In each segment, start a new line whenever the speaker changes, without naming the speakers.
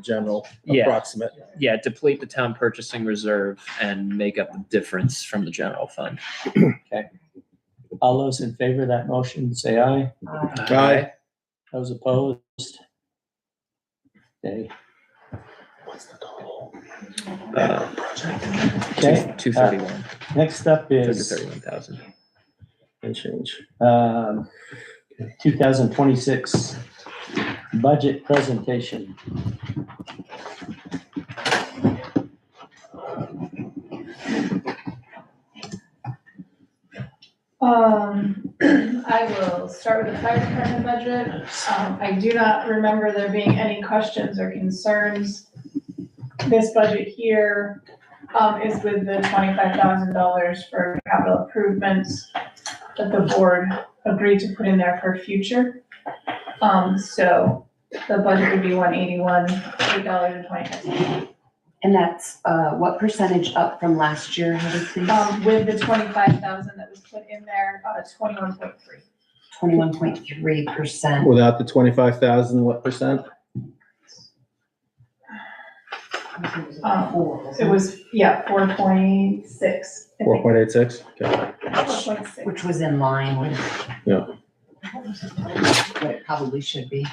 general
Yeah.
approximate.
Yeah, deplete the town purchasing reserve and make up the difference from the general fund.
All those in favor of that motion, say aye.
Aye.
Those opposed? Okay. Okay,
Uh, Two thirty-one,
next up
to
is
thirty-one thousand.
And change.
um, 2026 budget presentation.
Um, I will start with the fire department budget. Um, I do not remember there being any questions or concerns. This budget here, um, is with the twenty-five thousand dollars for capital improvements that the board agreed to put in there for future. Um, so the budget would be one eighty-one, eight dollars and twenty-five cents.
And that's, uh, what percentage up from last year, how did it
Um, with the twenty-five thousand that was put in there, uh, twenty-one point three.
Twenty-one point three percent.
Without the twenty-five thousand, what percent?
It was, yeah, four point six.
Four point eight six? Okay.
Oh, Four point six.
Which was in line with.
Yeah.
What it probably should be.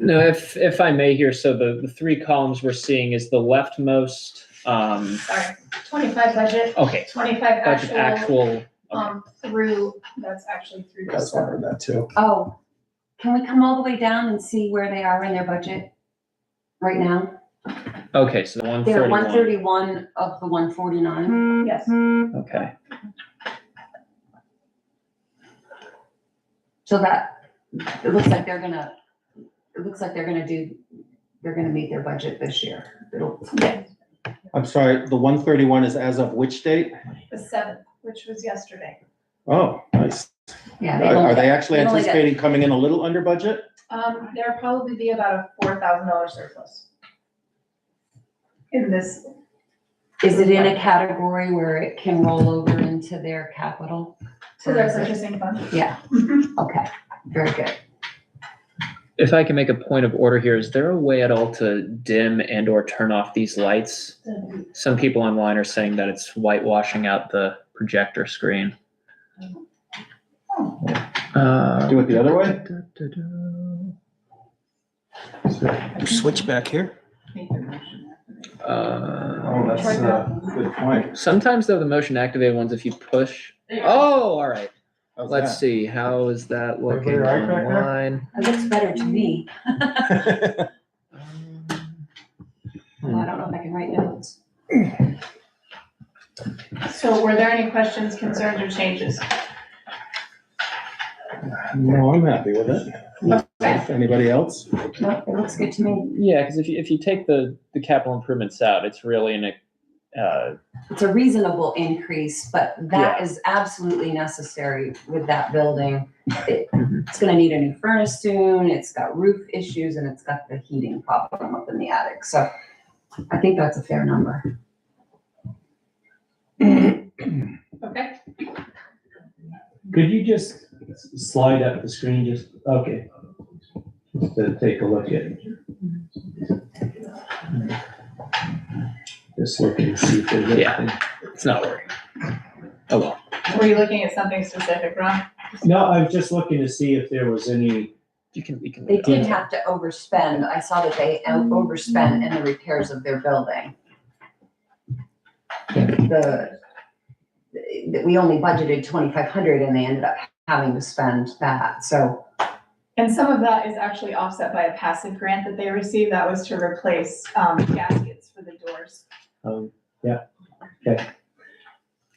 No, if, if I may here, so the, the three columns we're seeing is the leftmost, um,
Sorry, twenty-five budget,
okay,
twenty-five
budget
actual,
actual,
um, through, that's actually through
I was
December.
wondering that too.
Oh, can we come all the way down and see where they are in their budget? Right now,
okay, so the one
they're one
thirty-one,
thirty-one of the one forty-nine.
Yes,
okay.
So that, it looks like they're gonna, it looks like they're gonna do, they're gonna meet their budget this year. It'll-
yes,
I'm sorry, the one thirty-one is as of which date?
the seventh, which was yesterday.
Oh, nice.
Yeah.
Are
they won't
are
get-
they actually
they only get-
anticipating coming in a little under budget?
Um, there'll probably be about a four thousand dollar surplus. In this,
Is it in a category where it can roll over into their capital?
to their purchasing fund.
Yeah, okay, very good.
If I can make a point of order here, is there a way at all to dim and or turn off these lights? Some people online are saying that it's whitewashing out the projector screen. Uh,
Do it the other way?
Switch back here.
uh,
that's, uh,
a good point.
Sometimes though, the motion activated ones, if you push, oh, all right. Let's see, how is that
Everybody
looking
all right back there?
online?
It looks better to me. Well, I don't know if I can write notes.
So were there any questions, concerns, or changes?
No, I'm happy with it. Anybody else?
No, it looks good to me.
Yeah, because if you, if you take the, the capital improvements out, it's really in a, uh,
It's a reasonable increase, but that is absolutely necessary with that building. It- It's gonna need a new furnace soon, it's got roof issues, and it's got the heating problem up in the attic, so I think that's a fair number.
Okay,
Could you just slide up the screen, just, okay. Just to take a look at. it. Just look and see if there's
Yeah.
anything.
it's not working. Oh, well.
were you looking at something specific, Ron?
No, I was just looking to see if there was any,
You can, you can.
They
leave that.
did have to overspend, I saw that they overspent in the repairs of their building. The, that we only budgeted twenty-five hundred and they ended up having to spend that, so,
And some of that is actually offset by a passive grant that they received, that was to replace, um, gaskets for the doors.
um, yeah, okay.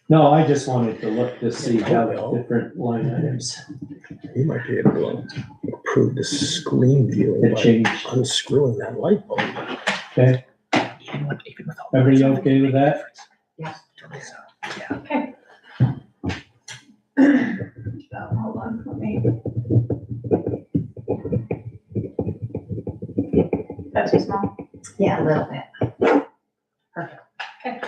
No, I just wanted to look to see how the different line items
You might be able to improve the screen view
had
by
changed.
unscrewing that light bulb.
Okay, everybody okay with that?
Okay. Um, Hold on, let me. That's too small.
yeah, a little bit. Perfect.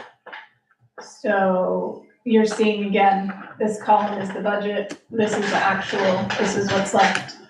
So you're seeing again, this column is the budget, this is the actual, this is what's left.